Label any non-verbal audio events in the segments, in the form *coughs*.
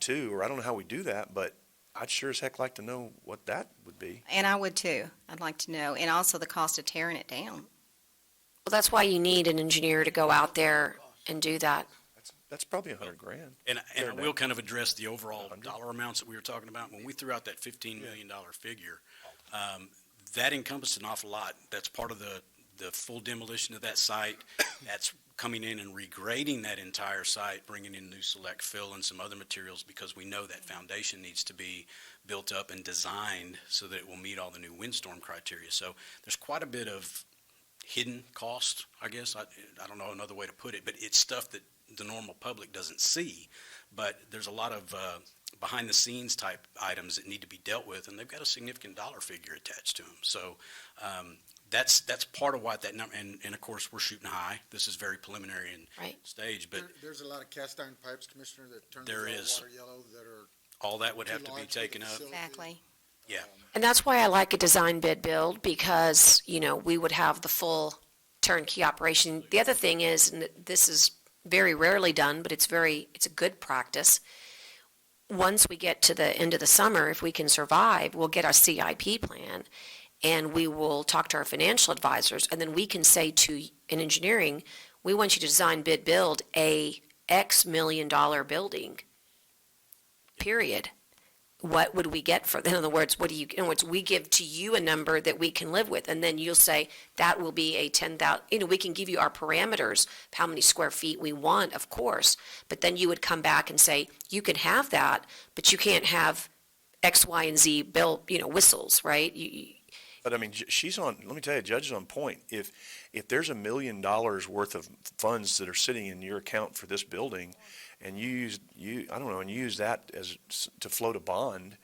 too, or I don't know how we do that, but I'd sure as heck like to know what that would be. And I would too. I'd like to know, and also the cost of tearing it down. Well, that's why you need an engineer to go out there and do that. That's, that's probably a hundred grand. And, and I Fair will enough. kind of address the overall Hundred. dollar amounts that we were talking about. When we threw out that fifteen million dollar figure, um, that encompassed an awful lot. That's part of the, the full demolition of *coughs* that site. That's coming in and regrading that entire site, bringing in new select fill and some other materials because we know that foundation needs to be built up and designed so that it will meet all the new windstorm criteria. So there's quite a bit of hidden cost, I guess. I, I don't know another way to put it, but it's stuff that the normal public doesn't see. But there's a lot of uh, behind the scenes type items that need to be dealt with, and they've got a significant dollar figure attached to them. So um, that's that's part of why that number. And, and of course, we're shooting high. This is very preliminary and Right. stage, but There, there's a lot of cast iron pipes, Commissioner, that turn the There yellow is. water yellow that are. all that would too have to be large for the taken up. facility. Exactly. Yeah. Um, And that's why I like a design bid build because, you know, we would have the full turnkey operation. The other thing is, and this is very rarely done, but it's very, it's a good practice. Once we get to the end of the summer, if we can survive, we'll get our CIP plan and we will talk to our financial advisors. And then we can say to, in engineering, we want you to design bid build a X million dollar building, period what would we get for, in other words, what do you, in other words, we give to you a number that we can live with, and then you'll say, that will be a ten thousand. you know, we can give you our parameters, of how many square feet we want, of course, but then you would come back and say, you can have that, but you can't have X, Y, and Z bill, you know, whistles, right? You- You, But I mean, j- she's on, let me tell you, Judge is on point. If, if there's a million dollars worth of funds that are sitting in your account for this building and you use, you, I don't know, and you use that as, s- to float a bond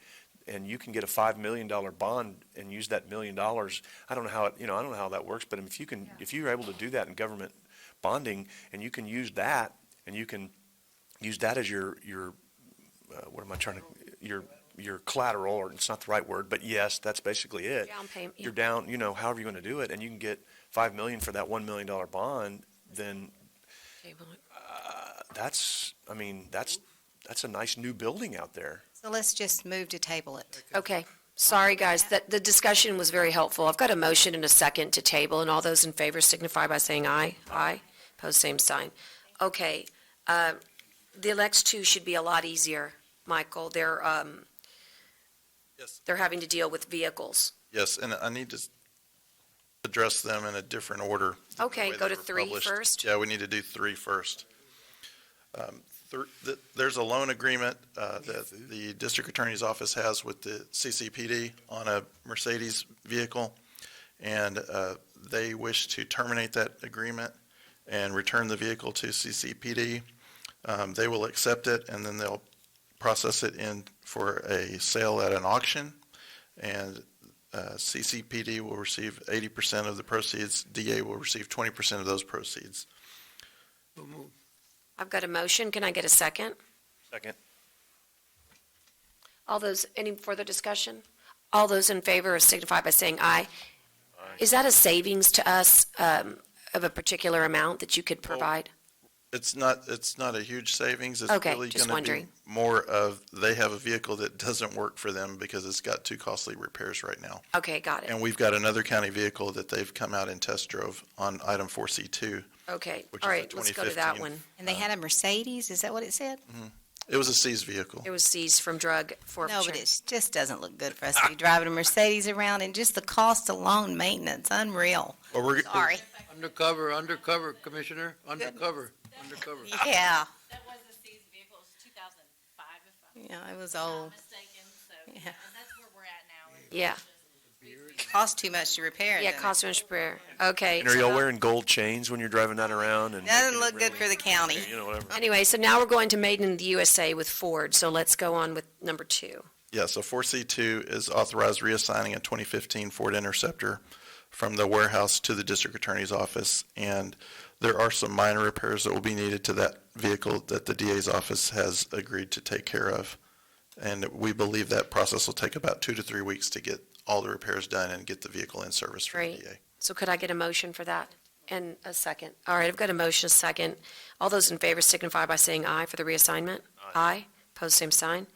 and you can get a five million dollar bond and use that million dollars, I don't know how, it you know, I don't know how that works, but if you can, if you're able to do that in government bonding and you can use that and you can use that as your, your, uh, what am I trying to, your, your collateral, or it's not the right word, but yes, that's basically it Down payment, yeah. you're down, you know, however you're gonna do it, and you can get five million for that one million dollar bond, then that's, I mean, that's, that's a nice new building out there. So let's just move to table it. Okay, sorry, guys, that, the discussion was very helpful. I've got a motion and a second to table, and all those in favor signify by saying aye. Aye, pose same sign. Okay, uh, the elects two should be a lot easier, Michael. They're, um, Yes. they're having to deal with vehicles. Yes, and I need to s- address them in a different order. than the Okay, way go they to were three published. first. Yeah, we need to do three first. Um, thir- th- There's a loan agreement uh, that the district attorney's office has with the CCPD on a Mercedes vehicle, and uh, they wish to terminate that agreement and return the vehicle to CCPD. Um, They will accept it, and then they'll process it in for a sale at an auction, and uh, CCPD will receive eighty percent of the proceeds, DA will receive twenty percent of those proceeds. I've got a motion. Can I get a second? Second. All those, any further discussion? All those in favor signify by saying aye. Is that a savings to us, um, of a particular amount that you could provide? It's not, it's not a huge savings, it's Okay, really just gonna be wondering. more of, they have a vehicle that doesn't work for them because it's got too costly repairs right now. Okay, got it. And we've got another county vehicle that they've come out and test drove on item four C two. Okay, which all is the right, let's go to that 2015. one. And they had a Mercedes, is that what it said? It was a seized vehicle. It was seized from drug forfeiture. No, but it just doesn't look good for us to be driving a Mercedes around and just the cost alone, maintenance, unreal. Well, we're- Sorry. Undercover, undercover, Commissioner, undercover, undercover. Yeah, That was the seized vehicle, it was two thousand five, if I'm yeah, it was not old. mistaken, so, Yeah. *laughs* yeah, and that's where we're at now. is Yeah. just- Cost too much to repair it. Yeah, doesn't it? cost of prayer. Okay. And are y'all so- wearing gold chains when you're driving that around and? Doesn't look good for the county. You know, whatever. Anyway, so now we're going to Made in the USA with Ford, so let's go on with number two. Yeah, so four C two is authorized reassigning a twenty fifteen Ford Interceptor from the warehouse to the district attorney's office. And there are some minor repairs that will be needed to that vehicle that the DA's office has agreed to take care of. And we believe that process will take about two to three weeks to get all the repairs done and get the vehicle in service for the Great. DA. So could I get a motion for that? And a second. All right, I've got a motion, a second. All those in favor signify by saying aye for the reassignment. Aye. Pose Opposed, same sign.